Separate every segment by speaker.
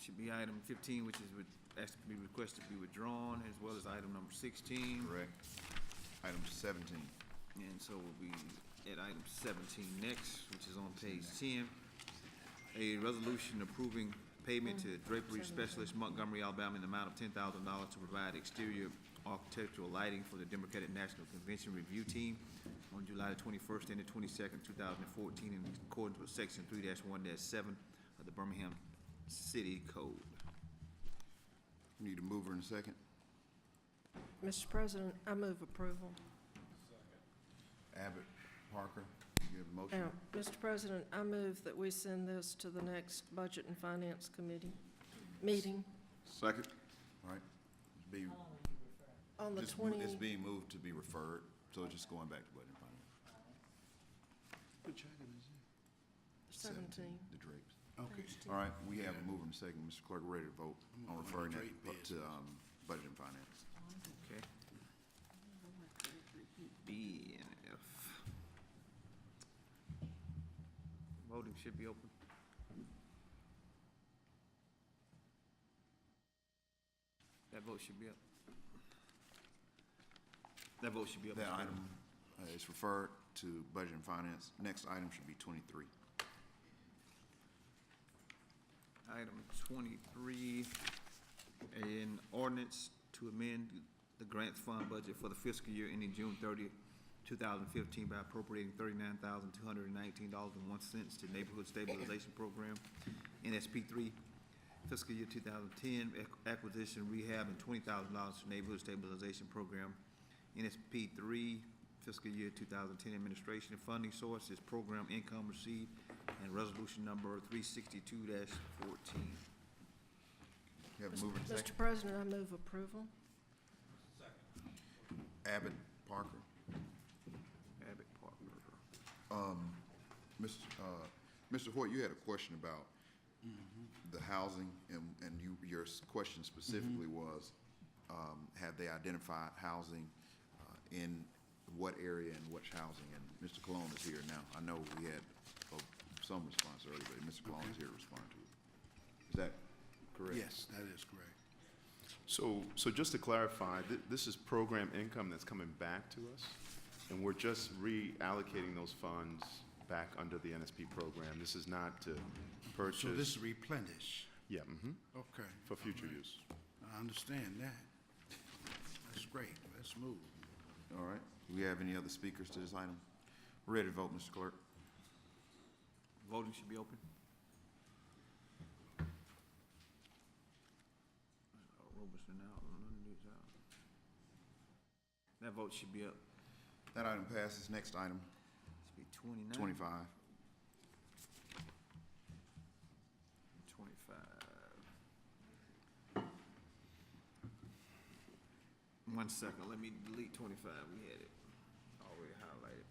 Speaker 1: should be item fifteen, which is, with- actually be requested to be withdrawn, as well as item number sixteen.
Speaker 2: Correct. Item seventeen.
Speaker 1: And so we'll be at item seventeen next, which is on page ten. A resolution approving payment to drapery specialist Montgomery, Alabama, in the amount of ten thousand dollars to provide exterior architectural lighting for the Democratic National Convention Review Team on July twenty-first and the twenty-second, two thousand and fourteen, in accordance with section three one seven of the Birmingham City Code.
Speaker 2: Need a mover and a second.
Speaker 3: Mr. President, I move approval.
Speaker 2: Abbott, Parker, you have a motion?
Speaker 3: Now, Mr. Uh, President, I move that we send this to the next Budget and Finance Committee meeting
Speaker 2: Second. All right. It's being,
Speaker 3: on the
Speaker 2: it's mo- it's
Speaker 3: 20,
Speaker 2: being moved to be referred, so it's just going back to Budget and Finance.
Speaker 3: 17.
Speaker 2: The Drapes.
Speaker 4: Okay,
Speaker 2: All right, we have a mover and a second. Mr. Clerk, we're ready to vote on referring that bu- to, um, Budget and Finance.
Speaker 1: Okay. B and F. Voting should be open. That vote should be up. That vote should be up.
Speaker 2: That
Speaker 1: Mr. President.
Speaker 2: item uh, is referred to Budget and Finance. Next item should be twenty-three.
Speaker 1: Item twenty-three, an ordinance to amend the grant fund budget for the fiscal year ending June 30, thousand fifteen by appropriating thirty-nine thousand two hundred and nineteen dollars and one cents to Neighborhood Stabilization Program, NSP three, fiscal year two thousand ten, acquisition, rehab, and twenty thousand dollars to Neighborhood Stabilization Program, NSP three, fiscal year two thousand ten administration and funding source is program income received and resolution number three sixty-two fourteen.
Speaker 2: You have a mover and a second.
Speaker 3: Mr. President, I move approval.
Speaker 2: Abbott, Parker.
Speaker 1: Abbott Park River.
Speaker 2: Mr. uh, Mr. Hoyt, you had a question about the housing, and, and you, your s- question specifically was, um, have they identified housing uh, in what area and which housing? And Mr. Cologne is here now. I know we had uh, some response earlier, but Mr. Cologne is here to respond to it. Is that correct?
Speaker 4: yes, that is correct.
Speaker 5: So, so just to clarify, th- this is program income that's coming back to us, and we're just reallocating those funds back under the NSP program. This is not to purchase.
Speaker 4: So this replenish,
Speaker 5: Yeah, mhm,
Speaker 4: okay.
Speaker 5: for future
Speaker 4: All right.
Speaker 5: use.
Speaker 4: I understand that. That's great, let's move.
Speaker 2: All right. Do we have any other speakers to this item? Ready to vote, Mr. Clerk?
Speaker 1: Voting should be open. Roberson out, Lundy's out. That vote should be up,
Speaker 2: That item passes. Next item,
Speaker 1: should be twenty-nine.
Speaker 2: twenty-five.
Speaker 1: Twenty-five. One second, let me delete twenty-five, we had it already highlighted.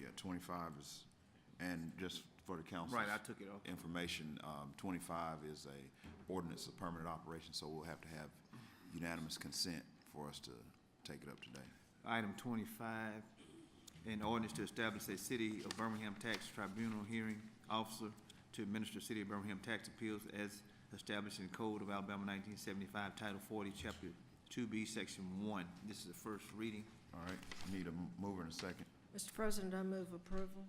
Speaker 2: Yeah, twenty-five is, and just for the council.
Speaker 1: Right, I took it off.
Speaker 2: Information, um, twenty-five is a ordinance of permanent operation, so we'll have to have unanimous consent for us to take it up today.
Speaker 1: Item twenty-five, an ordinance to establish a City of Birmingham Tax Tribunal hearing officer to administer City of Birmingham tax appeals as established in Code of Alabama nineteen seventy-five, Title forty, Chapter two B, Section one. This is the first reading.
Speaker 2: All right, need a mover and a second.
Speaker 3: Mr. President, I move approval.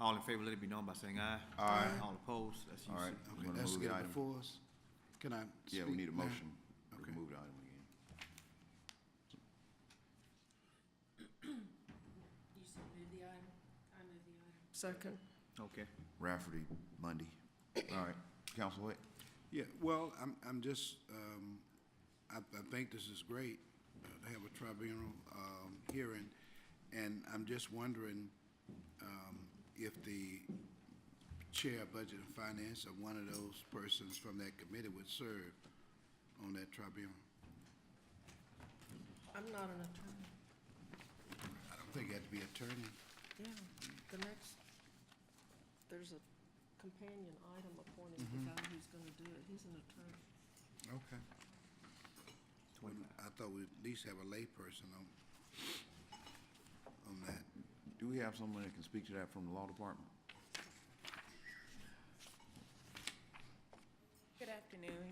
Speaker 1: All in favor, let it be known by saying aye. Aye. All opposed, that's
Speaker 2: All right,
Speaker 1: unanimous.
Speaker 2: we're
Speaker 4: Okay,
Speaker 2: gonna
Speaker 4: let's
Speaker 2: move the
Speaker 4: get it
Speaker 2: item.
Speaker 4: before us. Can I
Speaker 2: Yeah, we
Speaker 4: speak
Speaker 2: need a
Speaker 4: now?
Speaker 2: motion. We can
Speaker 4: Okay.
Speaker 2: move the item again.
Speaker 6: You said move the item, I move the item.
Speaker 3: Second.
Speaker 1: Okay.
Speaker 2: Rafferty, Mundy. All right, Council Hoyt?
Speaker 4: Yeah, well, I'm, I'm just, um, I, I think this is great, uh, to have a tribunal, um, hearing. And I'm just wondering, um, if the chair of budget and finance or one of those persons from that committee would serve on that tribunal.
Speaker 3: I'm not an attorney.
Speaker 4: I don't think it had to be attorney.
Speaker 3: Yeah, the next, there's a companion item appointing the
Speaker 2: Mm-hmm.
Speaker 3: guy who's going to do it. He's an attorney.
Speaker 4: Okay. I thought we'd at least have a layperson on, on that.
Speaker 2: Do we have someone that can speak to that from the law department?
Speaker 7: Good afternoon.
Speaker 3: afternoon.